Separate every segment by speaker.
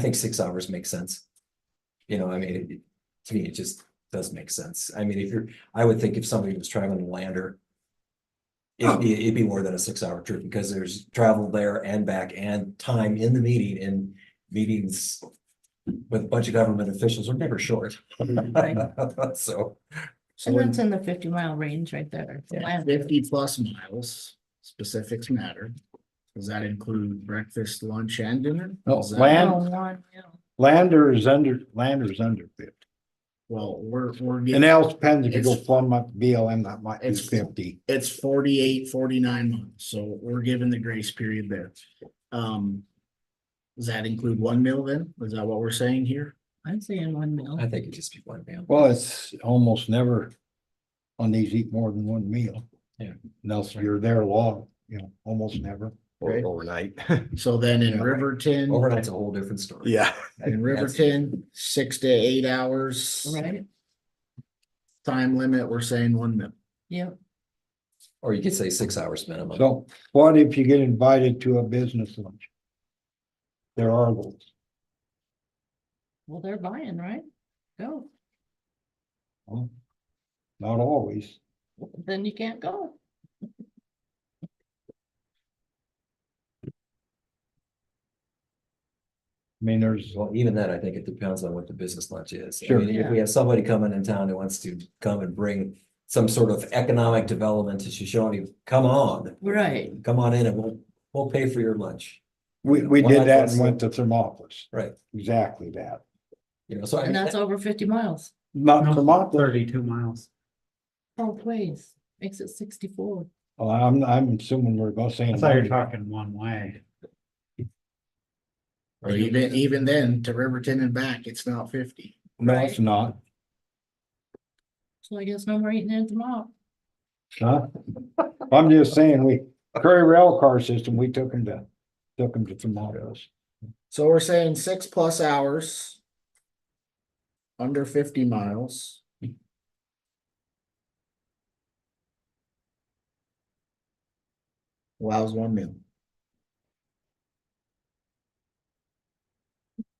Speaker 1: I think six hours makes sense. You know, I mean, it- to me, it just does make sense. I mean, if you're, I would think if somebody was traveling to Lander. It'd be, it'd be more than a six hour trip because there's travel there and back and time in the meeting and meetings. With a bunch of government officials are never short. So,
Speaker 2: And that's in the fifty mile range right there.
Speaker 3: Yeah,
Speaker 2: Wow.
Speaker 3: Fifty plus miles, specifics matter. Does that include breakfast, lunch and dinner?
Speaker 4: No,
Speaker 3: Is that-
Speaker 4: land-
Speaker 2: Oh, one, yeah.
Speaker 4: Lander is under, Lander is under fifty.
Speaker 3: Well, we're, we're,
Speaker 4: And
Speaker 3: getting-
Speaker 4: now it depends if you go
Speaker 3: It's-
Speaker 4: plumb up BLM, that might be
Speaker 3: It's-
Speaker 4: fifty.
Speaker 3: it's 48, 49 months, so we're given the grace period there. Um. Does that include one meal then? Is that what we're saying here?
Speaker 2: I'm saying one mil.
Speaker 1: I think it'd just be one meal.
Speaker 4: Well, it's almost never on these eat more than one meal.
Speaker 1: Yeah.
Speaker 4: And else you're there long, you know, almost never.
Speaker 5: Or
Speaker 3: Right.
Speaker 5: overnight.
Speaker 3: So then in
Speaker 4: Yeah.
Speaker 3: Riverton.
Speaker 1: Overnight's a whole different story.
Speaker 5: Yeah.
Speaker 3: In Riverton, six to eight hours.
Speaker 2: Right,
Speaker 3: Time limit, we're saying one meal.
Speaker 2: yep.
Speaker 1: Or you could say six hours minimum.
Speaker 4: So what if you get invited to a business lunch? There are those.
Speaker 2: Well, they're buying, right? Go.
Speaker 4: huh? Not always.
Speaker 2: Then you can't go.
Speaker 4: I mean, there's,
Speaker 1: Well, even then, I think it depends on what the business lunch is. I
Speaker 4: Sure.
Speaker 1: mean, if we have somebody coming in town who wants to come and bring some sort of economic development to Shoshone, come on.
Speaker 2: Right.
Speaker 1: Come on in and we'll, we'll pay for your lunch,
Speaker 4: we, we
Speaker 1: Well, I
Speaker 4: did that
Speaker 1: guess-
Speaker 4: and went to Thermopolis,
Speaker 1: right?
Speaker 4: exactly that.
Speaker 1: You know, so I,
Speaker 2: And that's
Speaker 1: mean,
Speaker 2: over fifty miles.
Speaker 4: Not
Speaker 6: No,
Speaker 4: Thermopolis,
Speaker 6: Thirty-two miles.
Speaker 2: Oh, please. Makes it sixty-four.
Speaker 4: Well, I'm, I'm assuming we're both saying.
Speaker 6: I thought you were talking one way.
Speaker 3: But even, even then, to Riverton and back, it's not fifty.
Speaker 4: No, it's not,
Speaker 2: So I guess no more eating at the mall.
Speaker 4: huh? I'm just saying, we, Curry Rail Car System, we took them to, took them to Tomatoes.
Speaker 3: So we're saying six plus hours. Under fifty miles. Allows one meal.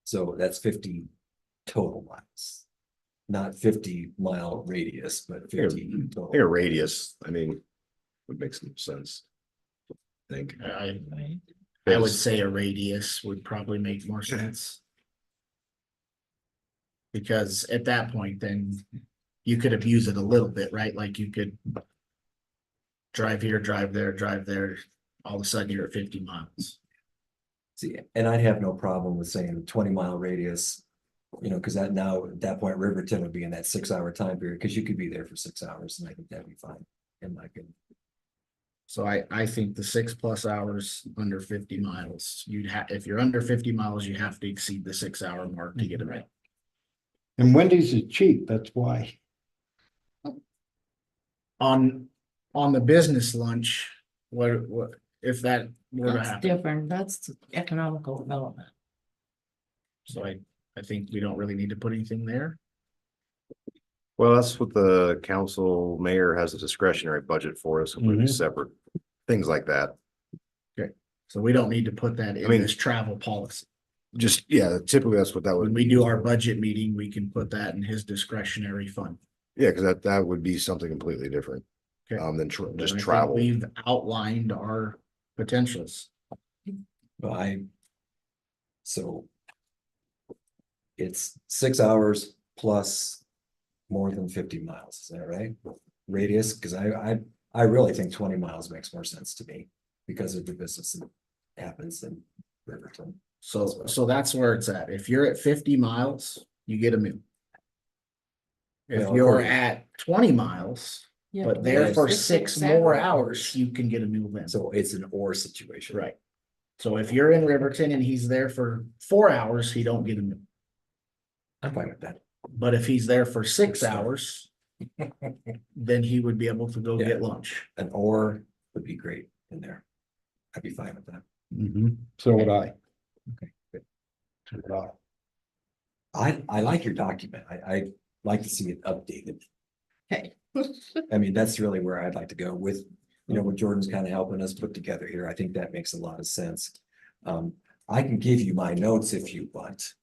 Speaker 1: so that's fifty total miles. Not fifty mile radius, but fifty
Speaker 5: I think
Speaker 1: total.
Speaker 5: a radius, I mean, would make some sense. I think.
Speaker 3: I,
Speaker 2: Right.
Speaker 3: I would say a radius would probably make more sense. Because at that point, then you could abuse it a little bit, right? Like you could. Drive here, drive there, drive there, all of a sudden you're at fifty miles.
Speaker 1: See, and I'd have no problem with saying twenty mile radius. You know, because that now, at that point, Riverton would be in that six hour time period, because you could be there for six hours and I think that'd be fine, in my opinion.
Speaker 3: So I, I think the six plus hours under fifty miles, you'd have, if you're under fifty miles, you have to exceed the six hour mark to
Speaker 2: Mhm.
Speaker 3: get it right.
Speaker 4: And Wendy's is cheap, that's why.
Speaker 3: On, on the business lunch, what, what, if that were to
Speaker 2: That's
Speaker 3: happen,
Speaker 2: different. That's economical development.
Speaker 3: so I, I think we don't really need to put anything there.
Speaker 5: Well, that's what the council mayor has a discretionary budget for is completely
Speaker 4: Mhm.
Speaker 3: Mm-hmm.
Speaker 5: separate, things like that.
Speaker 3: So we don't need to put that in
Speaker 5: mean-
Speaker 3: this travel policy.
Speaker 5: Just, yeah, typically that's what that
Speaker 3: When
Speaker 5: would,
Speaker 3: we do our budget meeting, we can put that in his discretionary fund.
Speaker 5: yeah, because that, that would be something completely different.
Speaker 3: Okay.
Speaker 5: Um, than tr-
Speaker 3: And I
Speaker 5: just
Speaker 3: think
Speaker 5: travel.
Speaker 3: We've outlined our potentials.
Speaker 1: Well, I. So. It's six hours plus more than fifty miles, is that right? Radius, because I, I, I really think twenty miles makes more sense to me because of the business that happens in Riverton.
Speaker 3: So, so that's where it's at. If you're at fifty miles, you get a meal. If
Speaker 1: Well,
Speaker 3: you're
Speaker 1: according-
Speaker 3: at twenty miles,
Speaker 2: Yeah,
Speaker 3: but there for
Speaker 2: it's
Speaker 3: six more
Speaker 2: hours.
Speaker 3: hours, you can get a meal then.
Speaker 1: So it's an or situation.
Speaker 3: Right. So if you're in Riverton and he's there for four hours, he don't get a meal.
Speaker 1: I'm fine with that.
Speaker 3: But if he's there for six
Speaker 1: Sure.
Speaker 3: hours, then he would be able to go
Speaker 1: Yeah.
Speaker 3: get lunch.
Speaker 1: An or would be great in there. I'd be fine with that.
Speaker 4: Mm-hmm. So would I.
Speaker 1: Okay, good.
Speaker 4: So would I.
Speaker 1: I, I like your document. I, I like to see it updated.
Speaker 2: Okay.
Speaker 1: I mean, that's really where I'd like to go with, you know, what Jordan's kind of helping us put together here. I think that makes a lot of sense. Um, I can give you my notes if you want.